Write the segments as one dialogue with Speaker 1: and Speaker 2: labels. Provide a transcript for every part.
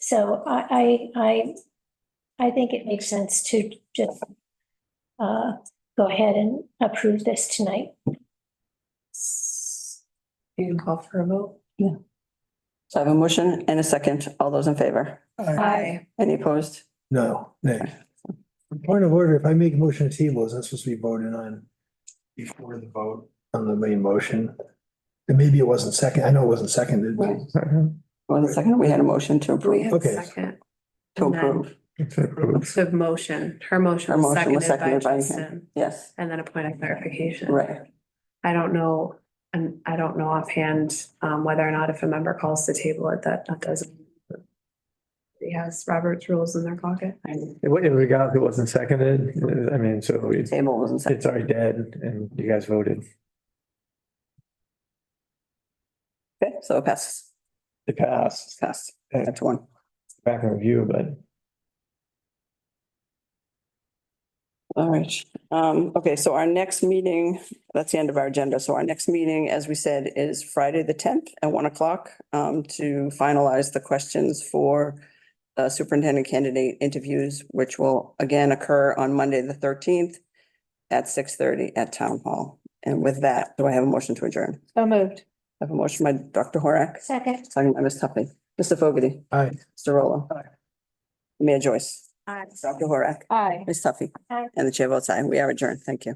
Speaker 1: So I, I, I, I think it makes sense to just uh, go ahead and approve this tonight.
Speaker 2: You can call for a vote.
Speaker 3: So I have a motion and a second. All those in favor?
Speaker 2: Aye.
Speaker 3: Any opposed?
Speaker 4: No, nay. Point of order, if I make a motion to table, is that supposed to be voted on
Speaker 5: before the vote.
Speaker 4: on the main motion? And maybe it wasn't second, I know it wasn't seconded, but
Speaker 3: Right. One second, we had a motion to
Speaker 2: We
Speaker 3: approve,
Speaker 2: have a
Speaker 4: Okay.
Speaker 2: second.
Speaker 3: to approve,
Speaker 2: So motion, her
Speaker 3: Her
Speaker 2: motion was
Speaker 3: motion was seconded
Speaker 2: seconded
Speaker 3: by
Speaker 2: by
Speaker 3: him.
Speaker 2: Justin,
Speaker 3: yes,
Speaker 2: and then a point of clarification.
Speaker 3: right.
Speaker 2: I don't know, and I don't know offhand, um, whether or not if a member calls to table it, that, that doesn't. He has Robert's rules in their pocket.
Speaker 5: If we- if we got, it wasn't seconded, I mean, so we-
Speaker 3: Table wasn't seconded.
Speaker 5: it's already dead and you guys voted.
Speaker 3: Okay, so it passes,
Speaker 5: It passed,
Speaker 3: passed, five to one.
Speaker 5: back in review, but
Speaker 3: All right, um, okay, so our next meeting, that's the end of our agenda. So our next meeting, as we said, is Friday, the tenth at one o'clock. Um, to finalize the questions for uh, superintendent candidate interviews, which will again occur on Monday, the thirteenth at six thirty at town hall. And with that, do I have a motion to adjourn?
Speaker 2: So moved.
Speaker 3: I have a motion by Dr. Horak,
Speaker 1: Second.
Speaker 3: second by Ms. Tuffy. Mr. Fogarty.
Speaker 4: Aye.
Speaker 3: Mr. Rolo. Mayor Joyce.
Speaker 1: Aye.
Speaker 3: Dr. Horak.
Speaker 2: Aye.
Speaker 3: Ms. Tuffy.
Speaker 1: Aye.
Speaker 3: And the chair votes aye. We are adjourned. Thank you.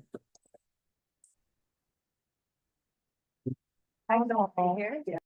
Speaker 2: I don't know.